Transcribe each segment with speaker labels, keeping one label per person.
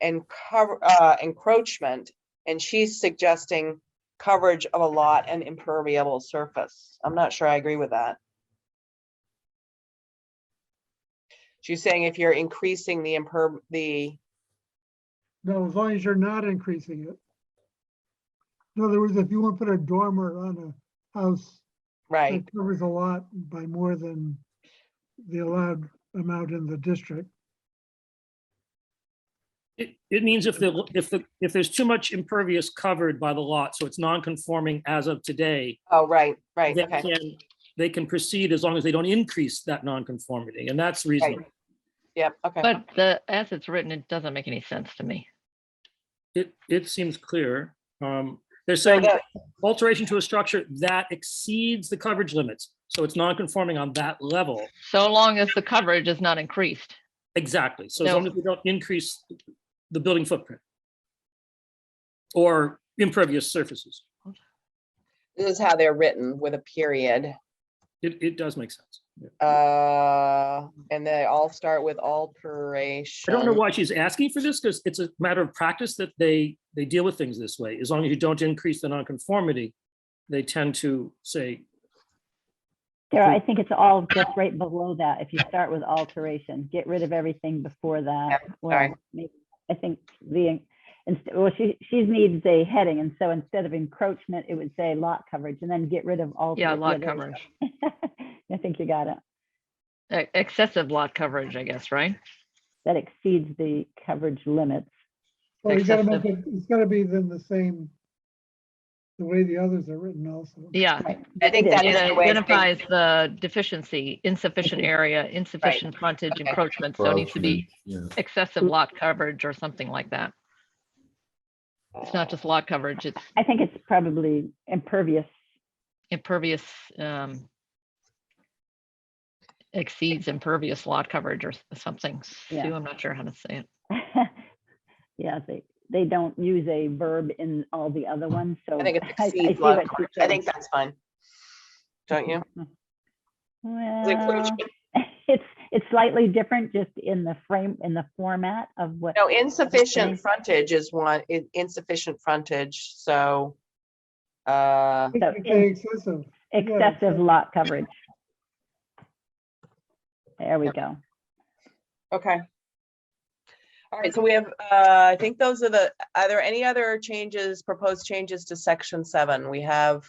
Speaker 1: and cover, uh, encroachment. And she's suggesting coverage of a lot and impermeable surface. I'm not sure I agree with that. She's saying if you're increasing the imperm, the,
Speaker 2: No, as long as you're not increasing it. In other words, if you want to put a dormer on a house,
Speaker 1: right,
Speaker 2: it covers a lot by more than the allowed amount in the district.
Speaker 3: It, it means if the, if the, if there's too much impervious covered by the lot, so it's non-conforming as of today,
Speaker 1: oh, right, right,
Speaker 3: they
Speaker 1: okay,
Speaker 3: can, they can proceed as long as they don't increase that non-conformity, and that's reasonable.
Speaker 1: yep, okay.
Speaker 4: But the, as it's written, it doesn't make any sense to me.
Speaker 3: It, it seems clear. Um, they're
Speaker 1: So
Speaker 3: saying
Speaker 1: that,
Speaker 3: alteration to a structure that exceeds the coverage limits, so it's non-conforming on that level.
Speaker 4: So long as the coverage is not increased.
Speaker 3: Exactly, so as
Speaker 4: No.
Speaker 3: long as we don't increase the building footprint. Or impervious surfaces,
Speaker 1: this is how they're written with a period.
Speaker 3: it, it does make sense. Yeah.
Speaker 1: Uh, and they all start with alteration.
Speaker 3: I don't know why she's asking for this, because it's a matter of practice that they, they deal with things this way. As long as you don't increase the nonconformity, they tend to say,
Speaker 5: Sarah, I think it's all just right below that. If you start with alteration, get rid of everything before that.
Speaker 1: sorry.
Speaker 5: Well, maybe- I think the, inst- well, she, she needs a heading, and so instead of encroachment, it would say lot coverage, and then get rid of all.
Speaker 4: Yeah, lot coverage,
Speaker 5: I think you got it.
Speaker 4: E- excessive lot coverage, I guess, right?
Speaker 5: That exceeds the coverage limits.
Speaker 2: Well, you gotta make it, it's gotta be then the same, the way the others are written also.
Speaker 4: Yeah.
Speaker 5: Right.
Speaker 1: I think
Speaker 5: It
Speaker 1: that
Speaker 4: It
Speaker 1: is the way. to think.
Speaker 4: identifies the deficiency, insufficient area, insufficient frontage
Speaker 1: Okay.
Speaker 4: encroachment, so it needs to be
Speaker 6: Yeah,
Speaker 4: excessive lot coverage or something like that. It's not just lot coverage, it's
Speaker 5: I think it's probably impervious.
Speaker 4: impervious, um, exceeds impervious lot coverage or s- something. Sue,
Speaker 5: Yeah.
Speaker 4: I'm not sure how to say it.
Speaker 5: Yeah, they, they don't use a verb in all the other ones, so.
Speaker 1: I think it
Speaker 5: I
Speaker 1: exceeds
Speaker 5: see
Speaker 1: lot
Speaker 5: what she's
Speaker 1: coverage. I think
Speaker 5: saying.
Speaker 1: that's fine. Don't you? The
Speaker 5: Well.
Speaker 1: encroachment-
Speaker 5: It's, it's slightly different just in the frame, in the format of what.
Speaker 1: No, insufficient
Speaker 5: Okay.
Speaker 1: frontage is one, in- insufficient frontage, so. Uh,
Speaker 2: It
Speaker 5: So
Speaker 2: could be
Speaker 5: in-
Speaker 2: excessive.
Speaker 5: Excessive lot coverage. There we
Speaker 1: Yep.
Speaker 5: go.
Speaker 1: okay. All right, so we have, uh, I think those are the, are there any other changes, proposed changes to section seven? We have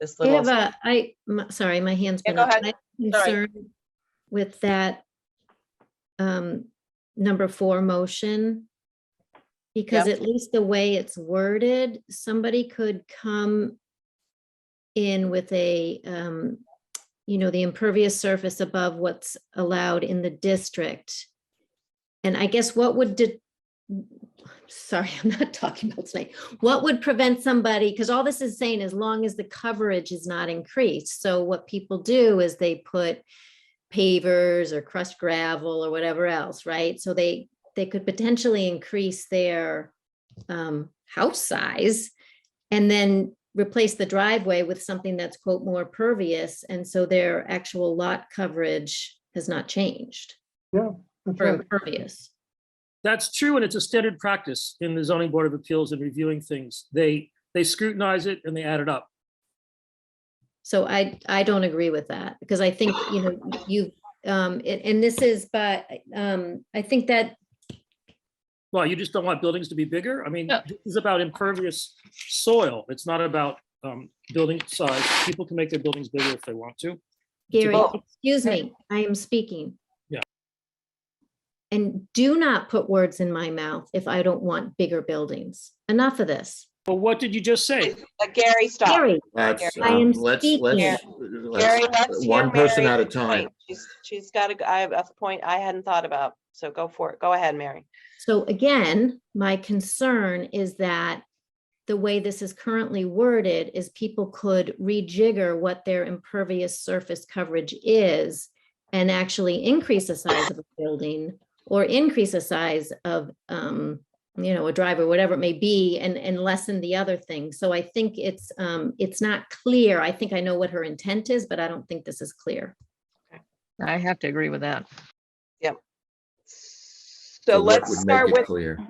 Speaker 1: this
Speaker 7: I
Speaker 1: little.
Speaker 7: have a, I, m- sorry, my hand's
Speaker 1: Yeah,
Speaker 7: been
Speaker 1: go
Speaker 7: up.
Speaker 1: ahead.
Speaker 7: I have
Speaker 1: Sorry.
Speaker 7: concern With that, um, number four motion. Because at least the way it's worded, somebody could come in with a, um, you know, the impervious surface above what's allowed in the district. And I guess what would, de- sorry, I'm not talking about tonight. What would prevent somebody, because all this is saying, as long as the coverage is not increased, so what people do is they put pavers or crushed gravel or whatever else, right? So they, they could potentially increase their um, house size and then replace the driveway with something that's quote more pervious, and so their actual lot coverage has not changed
Speaker 2: That's
Speaker 7: for
Speaker 2: right.
Speaker 7: impervious.
Speaker 3: that's true, and it's a standard practice in the zoning board of appeals and reviewing things. They, they scrutinize it and they add it up.
Speaker 7: So I, I don't agree with that, because I think, you know, you, um, and, and this is, but, um, I think that,
Speaker 3: Well, you just don't want buildings to be bigger? I mean,
Speaker 4: Yeah.
Speaker 3: this is about impervious soil. It's not about um, building size. People can make their buildings bigger if they want to.
Speaker 7: Gary,
Speaker 1: Well-
Speaker 7: excuse me, I am speaking.
Speaker 3: Yeah.
Speaker 7: And do not put words in my mouth if I don't want bigger buildings. Enough of this.
Speaker 3: But what did you just say?
Speaker 1: Uh, Gary, stop.
Speaker 7: Gary,
Speaker 6: that's,
Speaker 7: I
Speaker 6: um,
Speaker 7: am
Speaker 6: let's,
Speaker 7: speaking.
Speaker 6: let's,
Speaker 1: Gary,
Speaker 6: let's,
Speaker 1: let's hear
Speaker 6: one person
Speaker 1: Mary.
Speaker 6: at a time.
Speaker 1: Right, She's, she's got a, I have a point I hadn't thought about, so go for it. Go ahead, Mary.
Speaker 7: So again, my concern is that the way this is currently worded is people could rejigger what their impervious surface coverage is and actually increase the size of a building or increase the size of, um, you know, a drive or whatever it may be and, and lessen the other thing. So I think it's, um, it's not clear. I think I know what her intent is, but I don't think this is clear.
Speaker 4: I have to agree with that.
Speaker 1: So
Speaker 6: what
Speaker 1: let's
Speaker 6: would make
Speaker 1: start
Speaker 6: it
Speaker 1: with,
Speaker 6: Clear.